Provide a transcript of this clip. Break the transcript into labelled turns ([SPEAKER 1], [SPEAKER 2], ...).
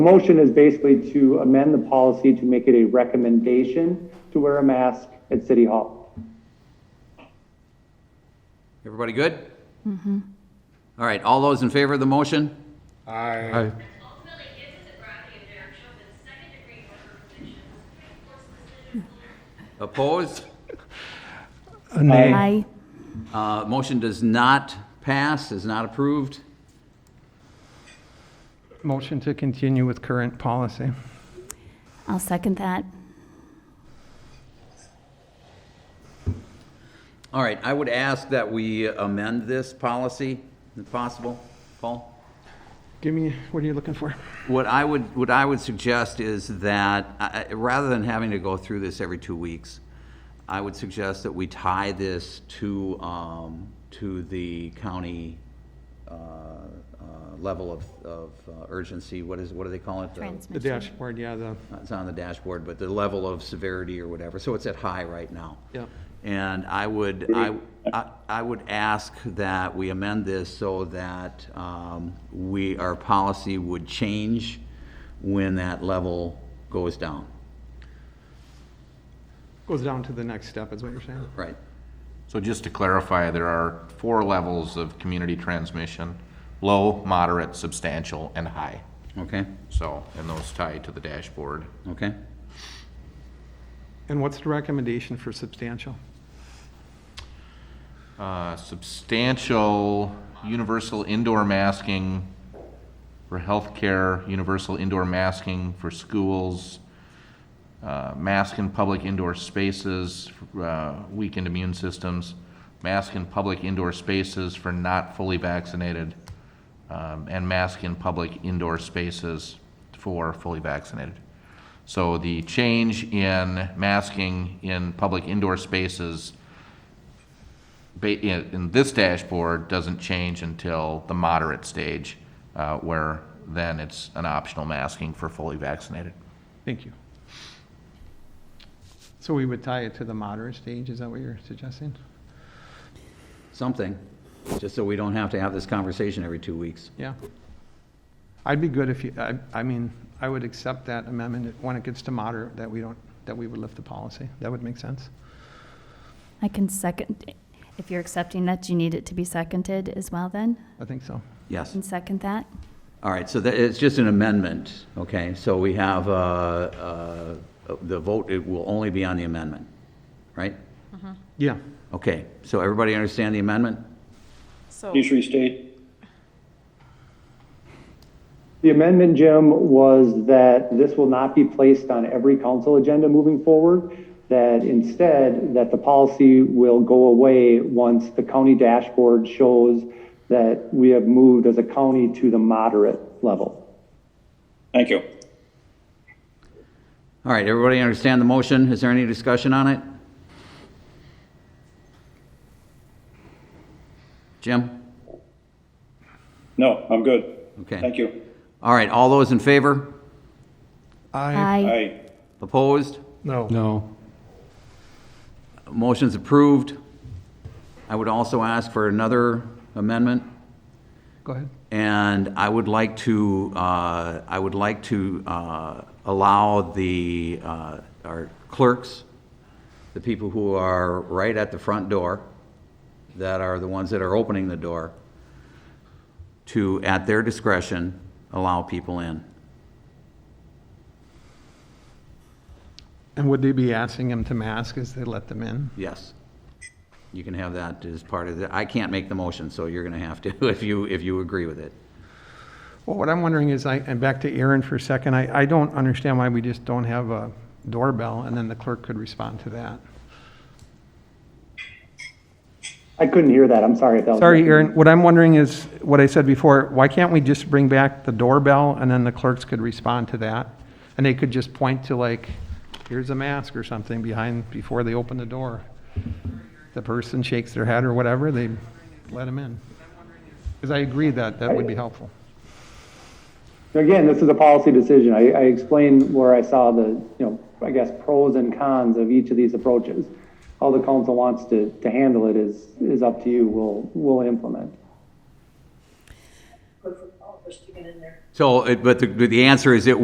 [SPEAKER 1] Motion is basically to amend the policy to make it a recommendation to wear a mask at City Hall.
[SPEAKER 2] Everybody good? All right, all those in favor of the motion?
[SPEAKER 3] Aye.
[SPEAKER 4] Ultimately, gives us a gravity of their chosen second-degree murder convictions. Court's decision will
[SPEAKER 2] Opposed?
[SPEAKER 5] Aye.
[SPEAKER 2] Uh, Motion does not pass, is not approved.
[SPEAKER 3] Motion to continue with current policy.
[SPEAKER 5] I'll second that.
[SPEAKER 2] All right, I would ask that we amend this policy, if possible, Paul?
[SPEAKER 3] Give me, what are you looking for?
[SPEAKER 2] What I would, what I would suggest is that, I- I- rather than having to go through this every two weeks, I would suggest that we tie this to, um, to the county, uh, uh, level of, of uh, urgency, what is, what do they call it? The-
[SPEAKER 3] The dashboard, yeah, the,
[SPEAKER 2] It's on the dashboard, but the level of severity or whatever, so it's at high right now.
[SPEAKER 3] yeah.
[SPEAKER 2] And I would, I, I- I would ask that we amend this so that um, we, our policy would change when that level goes down.
[SPEAKER 3] Goes down to the next step, is what you're saying.
[SPEAKER 2] Right.
[SPEAKER 6] So just to clarify, there are four levels of community transmission, low, moderate, substantial, and high.
[SPEAKER 2] Okay,
[SPEAKER 6] So, and those tie to the dashboard.
[SPEAKER 2] okay.
[SPEAKER 3] And what's the recommendation for substantial?
[SPEAKER 6] Uh, Substantial universal indoor masking for healthcare, universal indoor masking for schools, uh, mask in public indoor spaces, uh, weakened immune systems, mask in public indoor spaces for not fully vaccinated, um, and mask in public indoor spaces for fully vaccinated. So the change in masking in public indoor spaces ba- in, in this dashboard doesn't change until the moderate stage, uh, where then it's an optional masking for fully vaccinated.
[SPEAKER 3] Thank you. So we would tie it to the moderate stage, is that what you're suggesting?
[SPEAKER 2] Something, just so we don't have to have this conversation every two weeks.
[SPEAKER 3] Yeah. I'd be good if you, I, I mean, I would accept that amendment when it gets to moderate, that we don't, that we would lift the policy. That would make sense.
[SPEAKER 5] I can second, if you're accepting that, do you need it to be seconded as well then?
[SPEAKER 3] I think so.
[SPEAKER 2] Yes.
[SPEAKER 5] Can second that?
[SPEAKER 2] All right, so that, it's just an amendment, okay? So we have, uh, uh, the vote, it will only be on the amendment, right?
[SPEAKER 3] Yeah.
[SPEAKER 2] Okay, so everybody understand the amendment?
[SPEAKER 7] So,
[SPEAKER 8] Please restate.
[SPEAKER 1] The amendment, Jim, was that this will not be placed on every council agenda moving forward, that instead, that the policy will go away once the county dashboard shows that we have moved as a county to the moderate level.
[SPEAKER 8] Thank you.
[SPEAKER 2] All right, everybody understand the motion? Is there any discussion on it? Jim?
[SPEAKER 8] No, I'm good.
[SPEAKER 2] Okay.
[SPEAKER 8] Thank you.
[SPEAKER 2] All right, all those in favor?
[SPEAKER 5] Uh,
[SPEAKER 8] Aye.
[SPEAKER 2] Opposed?
[SPEAKER 3] No.
[SPEAKER 9] No.
[SPEAKER 2] Motion's approved. I would also ask for another amendment,
[SPEAKER 3] Go ahead.
[SPEAKER 2] and I would like to, uh, I would like to uh, allow the, uh, our clerks, the people who are right at the front door, that are the ones that are opening the door, to, at their discretion, allow people in.
[SPEAKER 3] And would they be asking them to mask as they let them in?
[SPEAKER 2] Yes. You can have that as part of the, I can't make the motion, so you're going to have to, if you, if you agree with it.
[SPEAKER 3] Well, what I'm wondering is, I, and back to Aaron for a second, I, I don't understand why we just don't have a doorbell, and then the clerk could respond to that.
[SPEAKER 1] I couldn't hear that, I'm sorry if that was.
[SPEAKER 3] Sorry, Aaron, what I'm wondering is, what I said before, why can't we just bring back the doorbell, and then the clerks could respond to that? And they could just point to like, here's a mask or something behind, before they open the door. The person shakes their head or whatever, they let them in. Because I agree that, that would be helpful.
[SPEAKER 1] Again, this is a policy decision. I, I explained where I saw the, you know, I guess pros and cons of each of these approaches. How the council wants to, to handle it is, is up to you. We'll, we'll implement.
[SPEAKER 7] pushed to get in there.
[SPEAKER 2] So, it- but uh, the, but the answer is it